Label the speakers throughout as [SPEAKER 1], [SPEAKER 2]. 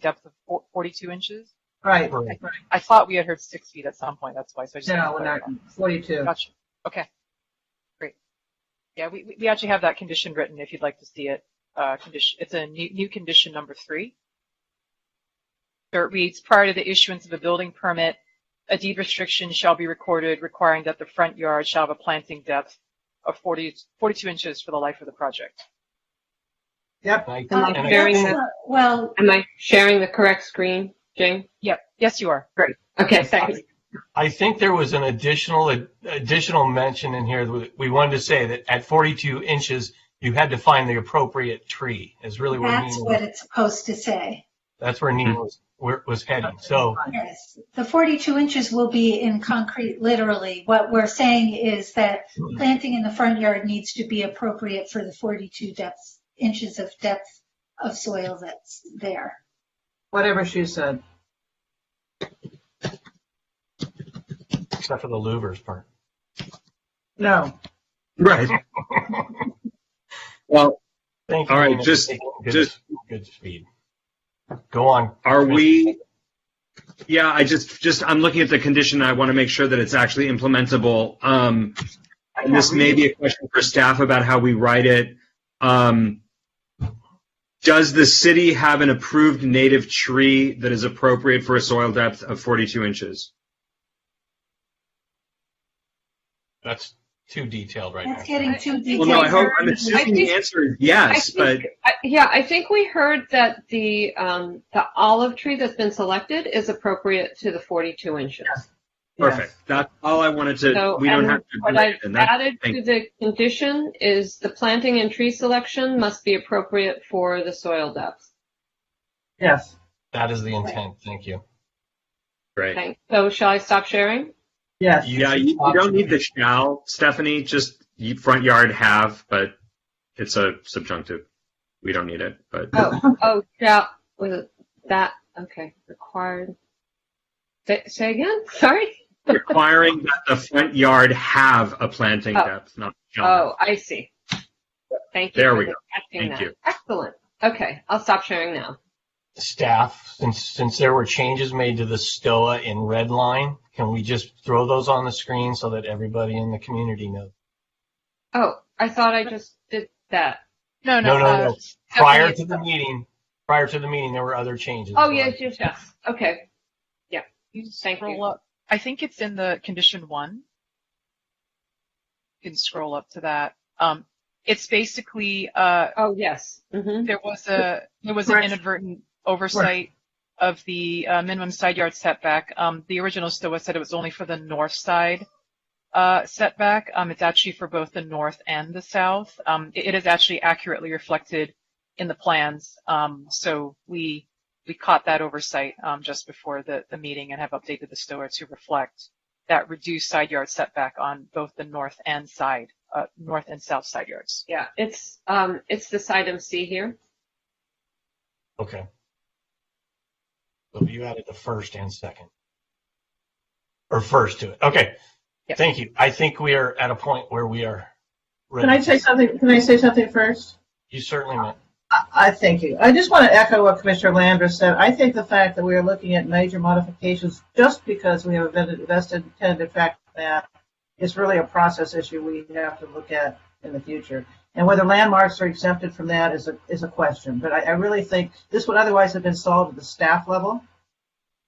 [SPEAKER 1] depth of four- 42 inches?
[SPEAKER 2] Right,
[SPEAKER 3] Right.
[SPEAKER 2] right.
[SPEAKER 1] I thought we had heard six feet at some point. That's why. So I just
[SPEAKER 2] No,
[SPEAKER 1] wanted to
[SPEAKER 2] not
[SPEAKER 1] clarify.
[SPEAKER 2] forty-two.
[SPEAKER 1] Gotcha. Okay. Great. Yeah, we, we- we actually have that condition written if you'd like to see it. Uh, condition, it's a new, new condition number three. So it reads, prior to the issuance of a building permit, a deed restriction shall be recorded requiring that the front yard shall have a planting depth of 40, 42 inches for the life of the project.
[SPEAKER 2] Yep.
[SPEAKER 3] I-
[SPEAKER 4] Am I
[SPEAKER 3] and I-
[SPEAKER 4] sharing
[SPEAKER 5] Uh, That's
[SPEAKER 4] the,
[SPEAKER 5] not- Well,
[SPEAKER 4] am I sharing the correct screen, Jane?
[SPEAKER 1] Yep. Yes, you are.
[SPEAKER 4] Okay, thanks.
[SPEAKER 3] I think there was an additional, additional mention in here that we wanted to say that at 42 inches, you had to find the appropriate tree is really where
[SPEAKER 5] that's
[SPEAKER 3] Nina,
[SPEAKER 5] what it's supposed to say.
[SPEAKER 3] that's where
[SPEAKER 6] Hmm.
[SPEAKER 3] Nina was, where, was heading. So
[SPEAKER 5] Yes. The 42 inches will be in concrete, literally. What we're saying is that
[SPEAKER 3] Hmm.
[SPEAKER 5] planting in the front yard needs to be appropriate for the 42 depths, inches of depth of soil that's there.
[SPEAKER 2] Whatever she said.
[SPEAKER 3] except for the louvers part.
[SPEAKER 2] No.
[SPEAKER 6] Right. Well,
[SPEAKER 3] Thank you.
[SPEAKER 6] All right,
[SPEAKER 3] Nina, for
[SPEAKER 6] just-
[SPEAKER 3] taking good-
[SPEAKER 6] just-
[SPEAKER 3] Good speed. Go on.
[SPEAKER 6] are we, yeah, I just, just, I'm looking at the condition. I want to make sure that it's actually implementable. Um, and this may be a question for staff about how we write it. Um, does the city have an approved native tree that is appropriate for a soil depth of 42 inches?
[SPEAKER 3] That's too detailed right now.
[SPEAKER 5] That's getting too
[SPEAKER 6] Well,
[SPEAKER 5] detailed.
[SPEAKER 6] no, I hope, I'm assuming the
[SPEAKER 4] think-
[SPEAKER 6] answer is
[SPEAKER 4] I
[SPEAKER 6] yes, but
[SPEAKER 4] think, I- yeah, I think we heard that the, um, the olive tree that's been selected is appropriate to the 42 inches.
[SPEAKER 6] perfect. That's all I wanted to,
[SPEAKER 4] So,
[SPEAKER 6] we don't
[SPEAKER 4] and
[SPEAKER 6] have to.
[SPEAKER 4] What
[SPEAKER 6] do
[SPEAKER 4] I've
[SPEAKER 6] it, and that's
[SPEAKER 4] added
[SPEAKER 6] thank
[SPEAKER 4] to the condition is the planting and tree selection must be appropriate for the soil depth.
[SPEAKER 2] Yes.
[SPEAKER 3] That is the intent. Thank you.
[SPEAKER 6] Great.
[SPEAKER 4] Thanks. So shall I stop sharing?
[SPEAKER 2] Yes.
[SPEAKER 6] Yeah, you, you don't need the shall, Stephanie. Just you- front yard have, but it's a subjunctive. We don't need it, but
[SPEAKER 2] Oh,
[SPEAKER 4] Oh, shall, was it that, okay, required. Say, say again, sorry?
[SPEAKER 6] requiring that the front yard have a planting
[SPEAKER 4] Oh.
[SPEAKER 6] depth, not shall.
[SPEAKER 4] Oh, I see. Thank you.
[SPEAKER 6] There
[SPEAKER 4] for
[SPEAKER 6] we go.
[SPEAKER 4] catching
[SPEAKER 6] Thank
[SPEAKER 4] that.
[SPEAKER 6] you.
[SPEAKER 4] Excellent. Okay, I'll stop sharing now.
[SPEAKER 3] staff, since, since there were changes made to the STOA in red line, can we just throw those on the screen so that everybody in the community knows?
[SPEAKER 4] Oh, I thought I just did that.
[SPEAKER 1] No,
[SPEAKER 3] No,
[SPEAKER 1] no.
[SPEAKER 3] no,
[SPEAKER 1] uh,
[SPEAKER 3] no. Prior to
[SPEAKER 4] Stephanie-
[SPEAKER 3] the meeting, prior to the meeting, there were other changes.
[SPEAKER 4] Oh, yes, yes, yes. Okay.
[SPEAKER 1] you can
[SPEAKER 4] Thank
[SPEAKER 1] scroll
[SPEAKER 4] you.
[SPEAKER 1] up. I think it's in the condition one. You can scroll up to that. Um, it's basically, uh,
[SPEAKER 4] Oh, yes. hmm
[SPEAKER 1] There was a, there was an
[SPEAKER 2] Correct.
[SPEAKER 1] inadvertent oversight of the uh, minimum side yard setback. Um, The original STOA said it was only for the north side uh, setback. Um, It's actually for both the north and the south. Um, It it is actually accurately reflected in the plans. Um, So we, we caught that oversight um, just before the, the meeting and have updated the STOA to reflect that reduced side yard setback on both the north and side, uh, north and south side yards.
[SPEAKER 4] Yeah, it's, um, it's this item C here.
[SPEAKER 3] Okay. So you added the first and second. Or first to it. Okay.
[SPEAKER 1] Yeah.
[SPEAKER 3] Thank you. I think we are at a point where we are ready.
[SPEAKER 7] Can I say something? Can I say something first?
[SPEAKER 3] You certainly
[SPEAKER 2] I-
[SPEAKER 3] meant.
[SPEAKER 2] I thank you. I just want to echo what Commissioner Landris said. I think the fact that we are looking at major modifications just because we have a vested- vested intent in fact that is really a process issue we have to look at in the future. And whether landmarks are exempted from that is a, is a question. But I, I really think this would otherwise have been solved at the staff level.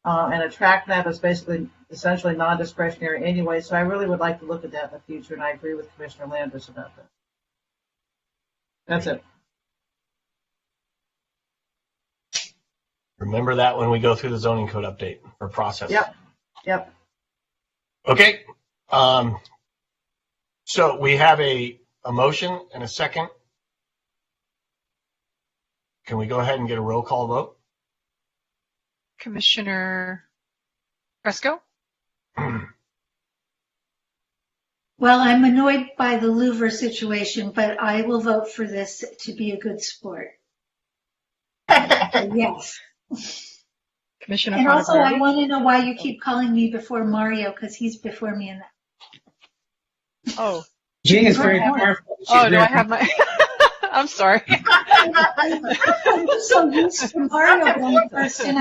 [SPEAKER 2] Uh, and a track map is basically essentially non-discretionary anyway, so I really would like to look at that in the future, and I agree with Commissioner Landris about that. That's it.
[SPEAKER 3] Remember that when we go through the zoning code update or process.
[SPEAKER 2] Yep. Yep.
[SPEAKER 3] Okay. Um, so we have a, a motion and a second. Can we go ahead and get a roll call vote?
[SPEAKER 1] Commissioner Fresco?
[SPEAKER 5] Well, I'm annoyed by the louver situation, but I will vote for this to be a good sport. Yes.
[SPEAKER 1] Commissioner
[SPEAKER 5] And also, I
[SPEAKER 1] Fontaine?
[SPEAKER 5] want to know why you keep calling me before Mario, because he's before me in that.
[SPEAKER 1] Oh,
[SPEAKER 8] Jane is very
[SPEAKER 5] Right.
[SPEAKER 8] powerful. She's
[SPEAKER 1] oh, do
[SPEAKER 8] very-
[SPEAKER 1] I have my, I'm sorry.
[SPEAKER 5] I'm so used to Mario going first, and